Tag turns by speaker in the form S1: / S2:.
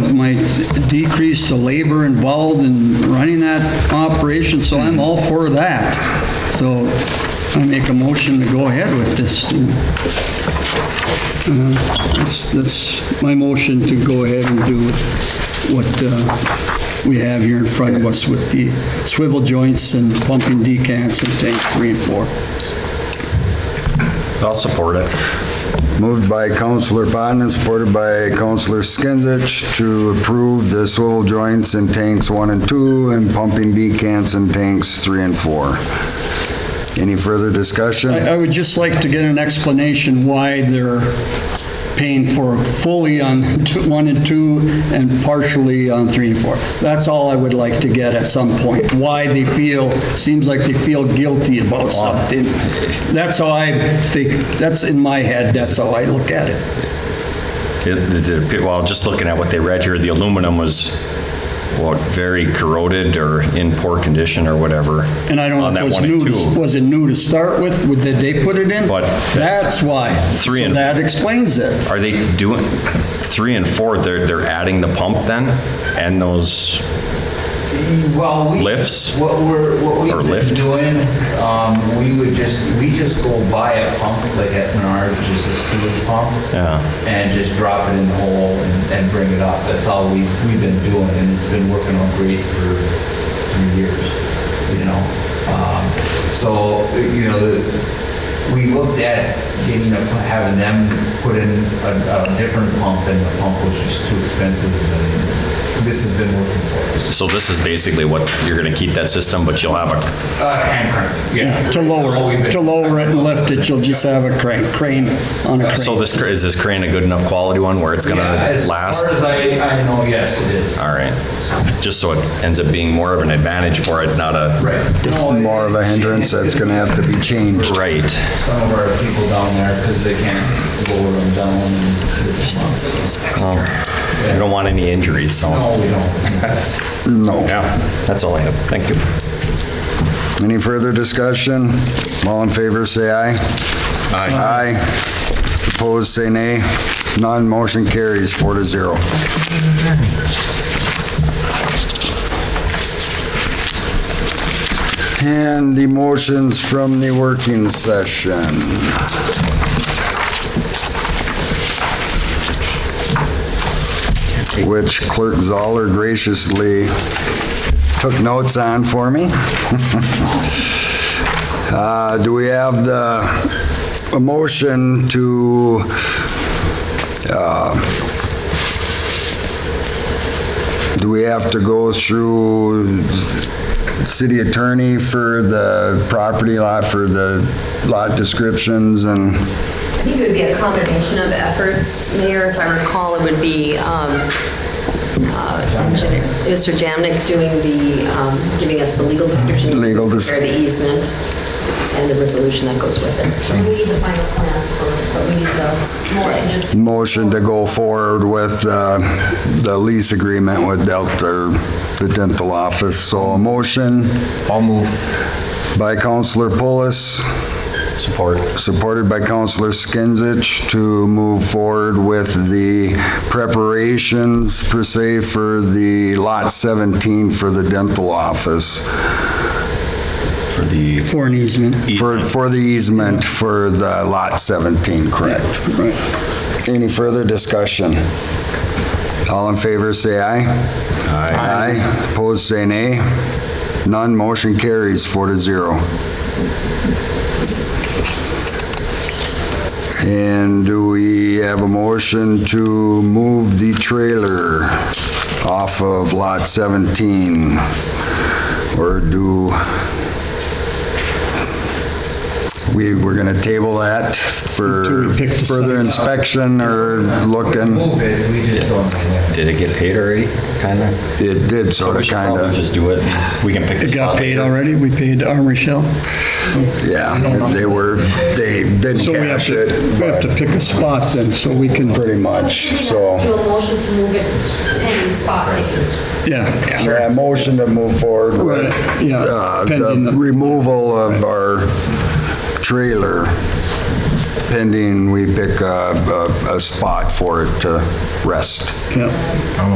S1: It might decrease the labor involved in running that operation, so I'm all for that. So I make a motion to go ahead with this. Uh, That's, that's my motion to go ahead and do what uh, we have here in front of us with the swivel joints and pumping decants in tank three and four.
S2: I'll support it.
S3: Moved by Counselor Bodnar, supported by Counselor Skinsich to approve the swivel joints in tanks one and two and pumping decants in tanks three and four. Any further discussion?
S1: I, I would just like to get an explanation why they're paying for fully on two- one and two and partially on three and four. That's all I would like to get at some point, why they feel, seems like they feel guilty about something. That's how I think, that's in my head, that's how I look at it.
S2: It- it- it- Well, just looking at what they read here, the aluminum was, what, very corroded or in poor condition or whatever.
S1: And I don't know
S2: on
S1: if
S2: that
S1: it was
S2: one and
S1: new, to-
S2: two.
S1: was it new to start with? Would- Did they put it in?
S2: But-
S1: That's why.
S2: Three
S1: So
S2: and-
S1: That explains it.
S2: Are they doing, three and four, they're, they're adding the pump then? And those,
S4: Well, we.
S2: Lifts?
S4: What we're, what we've
S2: Or
S4: been
S2: lift?
S4: doing, um, we would just, we just go buy a pump like at Menards, which is a sewage pump.
S2: Yeah.
S4: And just drop it in the hole and, and bring it up. That's all we've, we've been doing and it's been working on great for three years, you know? Um, So, you know, the, we looked at getting a, having them put in a, a different pump and the pump was just too expensive and this has been working for us.
S2: so this is basically what, you're going to keep that system, but you'll have a,
S4: Uh, hand crank, yeah.
S1: To lower
S4: Oh, we've
S1: it,
S4: been-
S1: to lower it and lift it, you'll just have a crane, crane on a crane.
S2: so this, cra- is this crane a good enough quality one where it's going
S4: Yeah,
S2: to
S4: as far
S2: last?
S4: as I, I know, yes, it is.
S2: All right. Just so it ends up being more of an advantage for it, not a,
S4: Right.
S3: It's
S4: No,
S3: more of a
S4: it-
S3: hindrance that's gonna have to be changed.
S2: right.
S4: Some of our people down there, because they can't lower them down. and-
S2: Well, We don't want any injuries, so.
S4: No, we don't.
S3: No.
S2: Yeah, that's all I have. Thank you.
S3: Any further discussion? All in favor, say aye. Aye. Aye. Opposed, say nay. None, motion carries four to zero. And the motions from the working session. Which Clerk Zoller graciously took notes on for me. Uh, Do we have the, a motion to, uh, do we have to go through city attorney for the property lot, for the lot descriptions and,
S5: I think it would be a combination of efforts, Mayor, if I recall, it would be um, uh, Mr. Jamnik doing the, um, giving us the legal description.
S3: Legal des-
S5: Or the easement, and the resolution that goes with it.
S6: So we need the final plans first, but we need the motion just to
S3: motion to go forward with uh, the lease agreement with Delta, the dental office. So a motion
S2: I'll move.
S3: by Counselor Pulis,
S2: Uh, Support.
S3: supported by Counselor Skinsich, to move forward with the preparations per se for the Lot 17 for the dental office,
S2: For the,
S1: For an easement.
S3: for for the easement for the Lot 17, correct?
S1: Right.
S3: Any further discussion? All in favor, say aye. Aye. Aye. Opposed, say nay. None, motion carries four to zero. And do we have a motion to move the trailer off of Lot 17? Or do, we, we're gonna table
S1: Until
S3: that for
S1: we pick the
S3: further
S1: site up.
S3: inspection or looking?
S4: Move it, we just don't.
S2: did it get paid already? Kind of?
S3: It did sorta, kinda,
S2: Just do it. We can pick
S1: It
S2: this
S1: got
S2: up
S1: paid
S2: later.
S1: already, we paid Armory Shell,
S3: yeah, they were, they didn't
S1: so we have
S3: cash
S1: to,
S3: it,
S1: we have to
S3: but
S1: pick a spot then, so we can,
S3: pretty much, so.
S6: do a motion to move it pending spot taking.
S1: yeah.
S3: Yeah, motion to move forward with
S1: Right, yeah,
S3: uh,
S1: pending
S3: the
S1: the-
S3: removal of our trailer pending we pick a, a- a spot for it to rest.
S1: yeah.